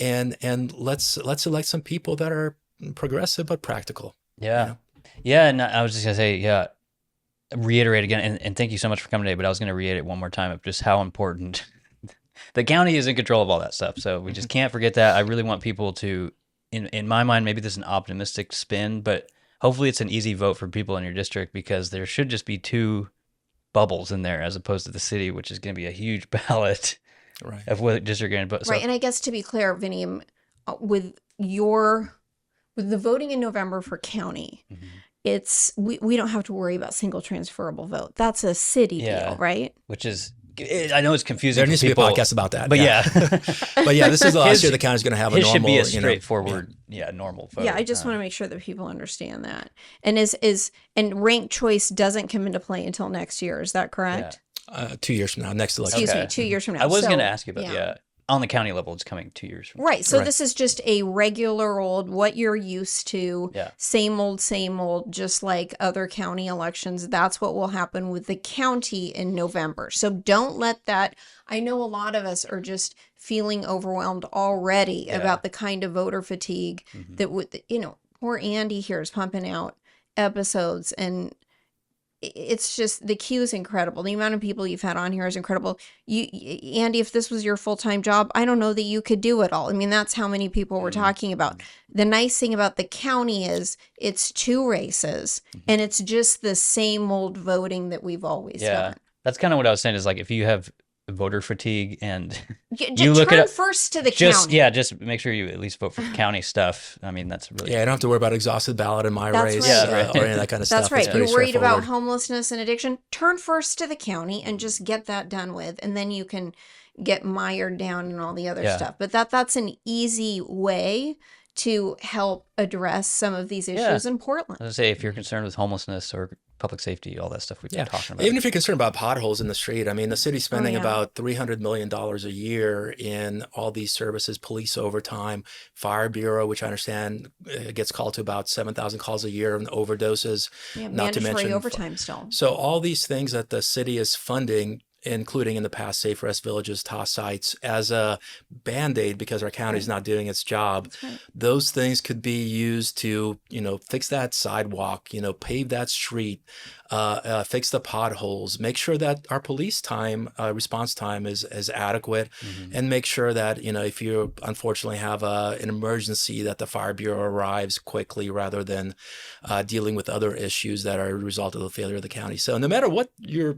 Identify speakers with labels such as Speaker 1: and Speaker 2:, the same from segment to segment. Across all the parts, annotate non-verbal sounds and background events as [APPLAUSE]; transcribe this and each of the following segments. Speaker 1: and and let's let's elect some people that are progressive but practical.
Speaker 2: Yeah. Yeah. And I was just going to say, yeah, reiterate again. And, and thank you so much for coming today. But I was going to reiterate one more time of just how important [LAUGHS] the county is in control of all that stuff. So we
Speaker 1: Mm-hmm.
Speaker 2: just can't forget that. I really want people to, in, in my mind, maybe this is an optimistic spin, but hopefully it's an easy vote for people in your district because there should just be two bubbles in there as opposed to the city, which is going to be a huge [LAUGHS] ballot
Speaker 1: Right.
Speaker 2: of what district you're going to vote. So,
Speaker 3: right. And I guess to be clear, Vinny, um, uh, with your with the voting in November for county,
Speaker 2: Mhm.
Speaker 3: it's we, we don't have to worry about single transferable vote. That's a city
Speaker 2: Yeah.
Speaker 3: deal, right?
Speaker 2: which is, it- I know it's confusing.
Speaker 1: There
Speaker 2: for
Speaker 1: needs
Speaker 2: people,
Speaker 1: to be a podcast about that.
Speaker 2: But yeah.
Speaker 1: [LAUGHS]
Speaker 2: [LAUGHS]
Speaker 1: but yeah, this is the last
Speaker 2: His-
Speaker 1: year the county's going to have a
Speaker 2: It
Speaker 1: normal.
Speaker 2: should be a
Speaker 1: you know-
Speaker 2: straightforward, yeah. normal vote.
Speaker 3: yeah, I just
Speaker 2: um,
Speaker 3: want to make sure that people understand that. And is is and ranked choice doesn't come into play until next year. Is that correct?
Speaker 1: uh, two years from now, next election.
Speaker 3: Excuse
Speaker 2: Okay.
Speaker 3: me, two years from now.
Speaker 2: I was
Speaker 3: So,
Speaker 2: going to ask you about yeah.
Speaker 3: yeah.
Speaker 2: on the county level. It's coming two years from.
Speaker 3: Right. So
Speaker 1: Right.
Speaker 3: this is just a regular old what you're used to.
Speaker 2: Yeah.
Speaker 3: Same old, same old, just like other county elections. That's what will happen with the county in November. So don't let that I know a lot of us are just feeling overwhelmed already
Speaker 2: Yeah.
Speaker 3: about the kind of voter fatigue
Speaker 2: Mhm.
Speaker 3: that would you know, poor Andy here is pumping out episodes and i- it's just the queue is incredible. The amount of people you've had on here is incredible. You, y- Andy, if this was your full time job, I don't know that you could do it all. I mean, that's how many people we're
Speaker 2: Mhm.
Speaker 3: talking about. The nice thing about the county is it's two races
Speaker 2: Mhm.
Speaker 3: and it's just the same old voting that we've always
Speaker 2: Yeah.
Speaker 3: done.
Speaker 2: That's kind of what I was saying. Is like if you have voter fatigue and
Speaker 3: J-
Speaker 2: You look
Speaker 3: turn
Speaker 2: at it-
Speaker 3: first to
Speaker 2: [LAUGHS]
Speaker 3: the
Speaker 2: just
Speaker 3: county.
Speaker 2: yeah, just make sure you at least
Speaker 3: [LAUGHS]
Speaker 2: vote for county stuff. I mean, that's really
Speaker 1: Yeah, I don't have to worry about exhausted ballot in my
Speaker 3: That's
Speaker 1: race
Speaker 3: right.
Speaker 2: Yeah, right.
Speaker 1: uh, or any of that kind of
Speaker 3: That's
Speaker 1: stuff. It's
Speaker 3: right.
Speaker 1: pretty
Speaker 3: You're worried about
Speaker 1: straightforward.
Speaker 3: homelessness and addiction. Turn first to the county and just get that done with, and then you can get mired down in all the other
Speaker 2: Yeah.
Speaker 3: stuff. But that that's an easy way to help address some of these
Speaker 2: Yeah.
Speaker 3: issues in
Speaker 2: I
Speaker 3: Portland.
Speaker 2: was gonna say if you're concerned with homelessness or public safety, all that stuff we've
Speaker 1: Yeah.
Speaker 2: been talking about.
Speaker 1: Even if you're concerned about potholes in the street, I mean, the city's spending
Speaker 3: Oh, yeah.
Speaker 1: about $300 million a year in all these services, police overtime, fire bureau, which I understand uh, gets called to about 7,000 calls a year on overdoses.
Speaker 3: Yeah,
Speaker 1: Not to
Speaker 3: mandatory
Speaker 1: mention-
Speaker 3: overtime still.
Speaker 1: So all these things that the city is funding, including in the past Safe Rest Villages, TOS sites, as a band-aid because our county's not doing its job,
Speaker 3: That's right.
Speaker 1: those things could be used to you know fix that sidewalk you know pave that street uh, uh, fix the potholes make sure that our police time uh, response time is is adequate
Speaker 2: Mhm.
Speaker 1: and make sure that you know if you unfortunately have a, an emergency that the fire bureau arrives quickly rather than uh, dealing with other issues that are a result of the failure of the county so no matter what your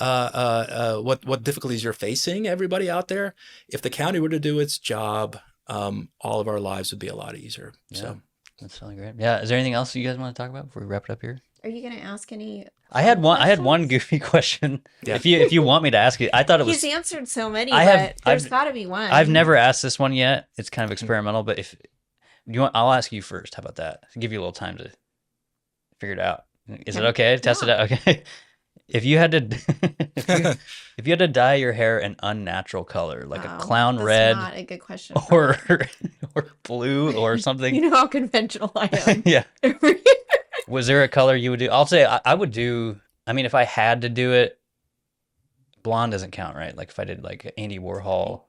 Speaker 1: uh, uh, uh, what what difficulties you're facing everybody out there if the county were to do its job um, all of our lives would be a lot easier so
Speaker 2: That's really great. Yeah. Is there anything else you guys want to talk about before we wrap it up here?
Speaker 3: Are you going to ask any?
Speaker 2: I had one. I had one
Speaker 3: Questions?
Speaker 2: goofy [LAUGHS] question.
Speaker 1: Yeah.
Speaker 2: If you if you want me to ask it, I thought it was
Speaker 3: He's answered so many,
Speaker 2: I have-
Speaker 3: but there's
Speaker 2: I've-
Speaker 3: got to be one.
Speaker 2: I've
Speaker 3: [LAUGHS]
Speaker 2: never asked this one yet. It's kind
Speaker 3: Mm-hmm.
Speaker 2: of experimental, but if you want, I'll ask you first. How about that? give you a little time to figure it out. Is it
Speaker 3: Okay.
Speaker 2: okay? to Test it out. Okay. [LAUGHS] If you had to, [LAUGHS] if
Speaker 3: [LAUGHS]
Speaker 2: you, if you had to dye your hair an unnatural color, like
Speaker 3: Wow,
Speaker 2: a clown
Speaker 3: that's
Speaker 2: red
Speaker 3: Not a good question. for
Speaker 2: [LAUGHS] or
Speaker 3: me.
Speaker 2: or blue or something,
Speaker 3: [LAUGHS] you know how conventional I am.
Speaker 2: [LAUGHS]
Speaker 3: [LAUGHS]
Speaker 2: yeah. Was there a color you would do? I'll say I, I would do. I mean, if I had to do it, blonde doesn't count, right? Like if I did like Andy Warhol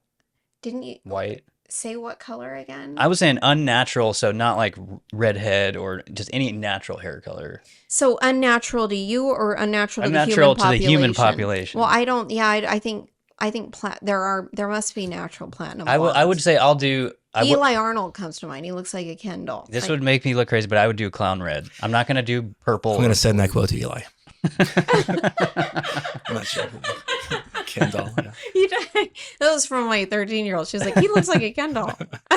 Speaker 3: Didn't you
Speaker 2: white.
Speaker 3: say what color again?
Speaker 2: I was saying unnatural, so not like r- redhead or just any natural hair color.
Speaker 3: So unnatural to you or unnatural,
Speaker 2: Unnatural
Speaker 3: to the human population?
Speaker 2: population.
Speaker 3: Well, I don't. Yeah, I, I think I think pla- there are there must be natural platinum.
Speaker 2: I would I would
Speaker 3: blondes.
Speaker 2: say I'll do. I would,
Speaker 3: Eli Arnold comes to mind. He looks like a Ken doll.
Speaker 2: this
Speaker 3: Like,
Speaker 2: would make me look crazy, but I would do clown red. I'm not gonna do purple.
Speaker 1: I'm going to send that quote to Eli. [LAUGHS]
Speaker 2: I
Speaker 1: I'm not sure. Ken doll. yeah.
Speaker 3: [LAUGHS] He d- [LAUGHS] that was from my 13 year old. She was like, he looks like a Ken doll. [LAUGHS]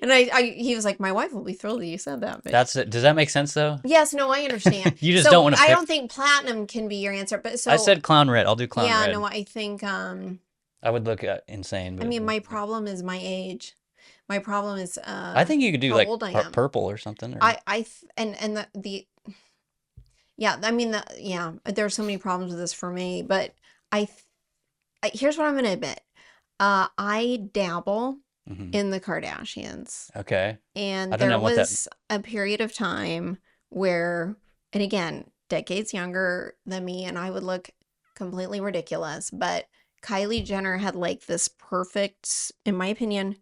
Speaker 3: and I, I, he was like, my wife will be thrilled that you said that. But
Speaker 2: That's it. Does that make sense though?
Speaker 3: yes, no, I understand.
Speaker 2: [LAUGHS] You just
Speaker 3: So
Speaker 2: don't wanna
Speaker 3: I
Speaker 2: pick-
Speaker 3: don't think platinum can be your answer. But so
Speaker 2: I said clown red. I'll do clown
Speaker 3: yeah,
Speaker 2: red.
Speaker 3: no, I think um,
Speaker 2: I would look uh, insane.
Speaker 3: I
Speaker 2: but-
Speaker 3: mean, my problem is my age. My problem is uh,
Speaker 2: I think you could do
Speaker 3: how
Speaker 2: like
Speaker 3: old I
Speaker 2: pur-
Speaker 3: am.
Speaker 2: purple or something. Or,
Speaker 3: I I th- and and the, the yeah, I mean the yeah, there are so many problems with this for me, but I, th- I here's what I'm going to admit. Uh I dabble
Speaker 2: Mhm.
Speaker 3: in the Kardashians.
Speaker 2: okay.
Speaker 3: And
Speaker 2: I don't
Speaker 3: there
Speaker 2: know what that-
Speaker 3: was a period of time where and again, decades younger than me and I would look completely ridiculous, but Kylie Jenner had like this perfect, in my opinion,